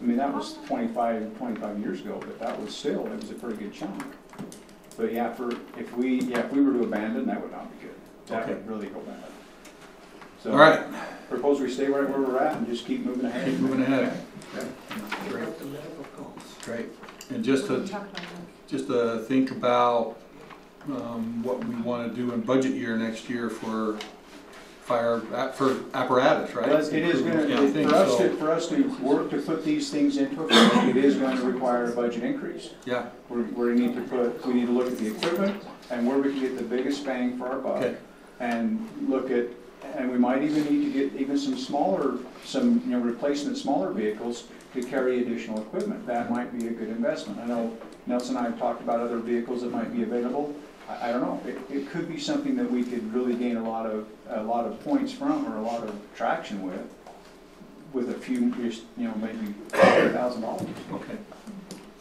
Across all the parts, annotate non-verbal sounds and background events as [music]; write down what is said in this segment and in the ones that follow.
I mean, that was 25, 25 years ago, but that was still, it was a pretty good chunk. But yeah, for, if we, yeah, if we were to abandon, that would not be good. That Okay. would really go bad. So, All right, Propose we stay right where we're at and just keep moving ahead. keep moving ahead. Okay. Great, the medical costs. great. And just to, just to think about um, what we want to do in budget year next year for fire, app- for apparatus, right? Well, it is gonna, Yeah, I think for us so. to, for us to work to put these things into effect, it is gonna require a budget increase. Yeah, We're, we need to put, we need to look at the equipment and where we can get the biggest bang for our buck. Okay. And look at, and we might even need to get even some smaller, some, you know, replacement smaller vehicles to carry additional equipment. That might be a good investment. I know Nelson and I have talked about other vehicles that might be available. I, I don't know, it, it could be something that we could really gain a lot of, a lot of points from or a lot of traction with, with a few, just, you know, maybe a thousand dollars. okay.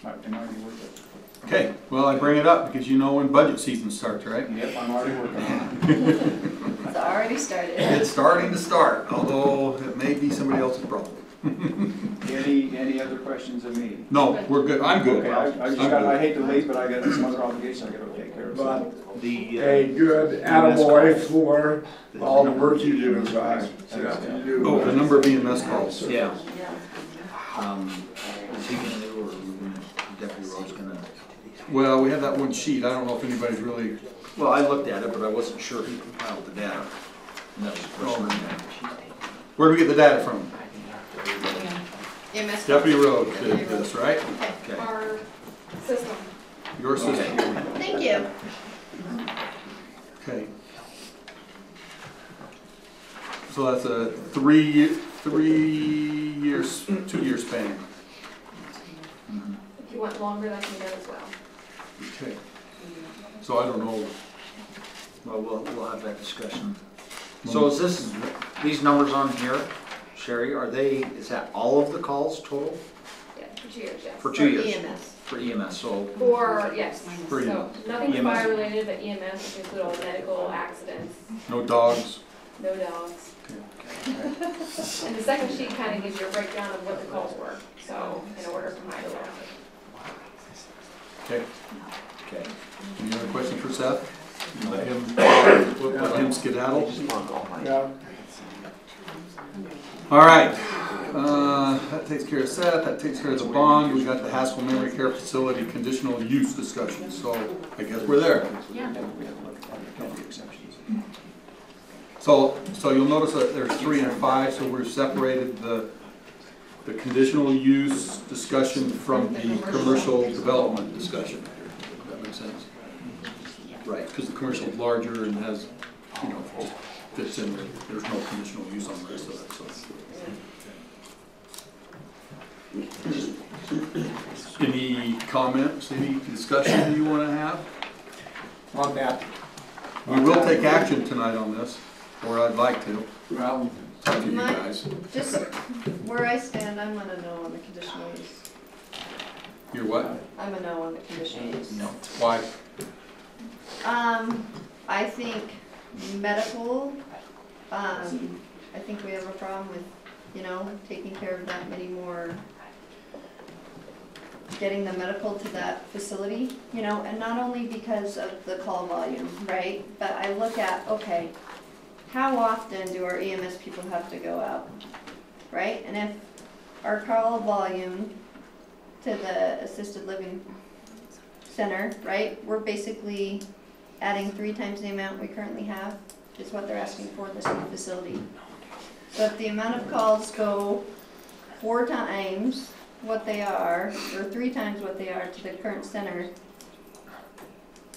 Might, it might be worth it. Okay, well, I bring it up because you know when budget season starts, right? Yep, I'm already working on it. It's already started. It's starting to start, although it may be somebody else's problem. Any, any other questions of me? No, we're good, I'm good. Okay, I, I just I'm got, I good. hate to leave, but I got some other obligation I gotta take care of. so- But The, uh, a good attaboy for all the work you do is I. Oh, the number of EMS calls. uh, yeah, Yeah. um, is he gonna do, or we gonna, Deputy Rowe's gonna? Well, we have that one sheet, I don't know if anybody's really, Well, I looked at it, but I wasn't sure he compiled the data. And that was the first one. where do we get the data from? EMS. Deputy Road did this, right? Okay. Our system. Your system, Okay. Thank you. okay. So that's a three, three years, two-year span. Mhm. If you want longer, that can be done as well. Okay. So I don't know, Well, we'll, we'll have that discussion. So is this, these numbers on here, Sherry, are they, is that all of the calls total Yeah, for two years, yes. For two years. EMS. for EMS? So For, yes, For so nothing EMS. fire related, but EMS, which include all medical accidents, no dogs. no dogs. [laughs] And the second sheet kind of gives you a breakdown of what the calls were, so in order from high to low. Okay, Okay. any other questions for Seth? Let him, let him skedaddle? Yeah, All right, uh, that takes care of Seth, that takes care of the bond, we got the Haskell Memory Care Facility conditional use discussion, so I guess we're there. Yeah. So, so you'll notice that there's three and five, so we've separated the, the conditional use discussion from the commercial development discussion. If That makes sense? Right, because the commercial's larger and has, you know, just fits in, there. there's no conditional use on the rest of it, so. Any comments, any discussion you want to have? on that, We will take action tonight on this, or I'd like to, well, talk to you Mike? guys. Just where I stand, I'm a no on the conditional use. Your what? I'm a no on the conditional use. No. Why? Um, I think medical, um, I think we have a problem with, you know, taking care of that many more, getting the medical to that facility, you know, and not only because of the call volume, right? But I look at, okay, how often do our EMS people have to go out, right? And if our call volume to the assisted living center, right? We're basically adding three times the amount we currently have, is what they're asking for this new facility. So if the amount of calls go four times what they are, or three times what they are to the current center,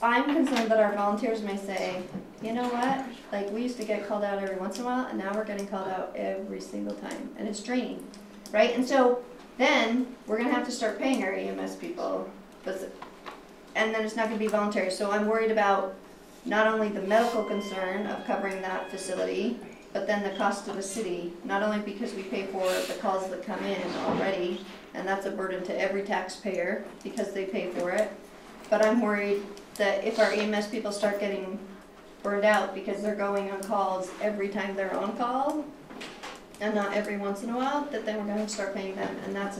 I'm concerned that our volunteers may say, you know what, like, we used to get called out every once in a while, and now we're getting called out every single time, and it's draining, right? And so, then, we're gonna have to start paying our EMS people, but and then it's not gonna be voluntary, so I'm worried about not only the medical concern of covering that facility, but then the cost to the city, not only because we pay for the calls that come in already, and that's a burden to every taxpayer because they pay for it, but I'm worried that if our EMS people start getting burned out because they're going on calls every time they're on call, and not every once in a while, that then we're gonna start paying them, and that's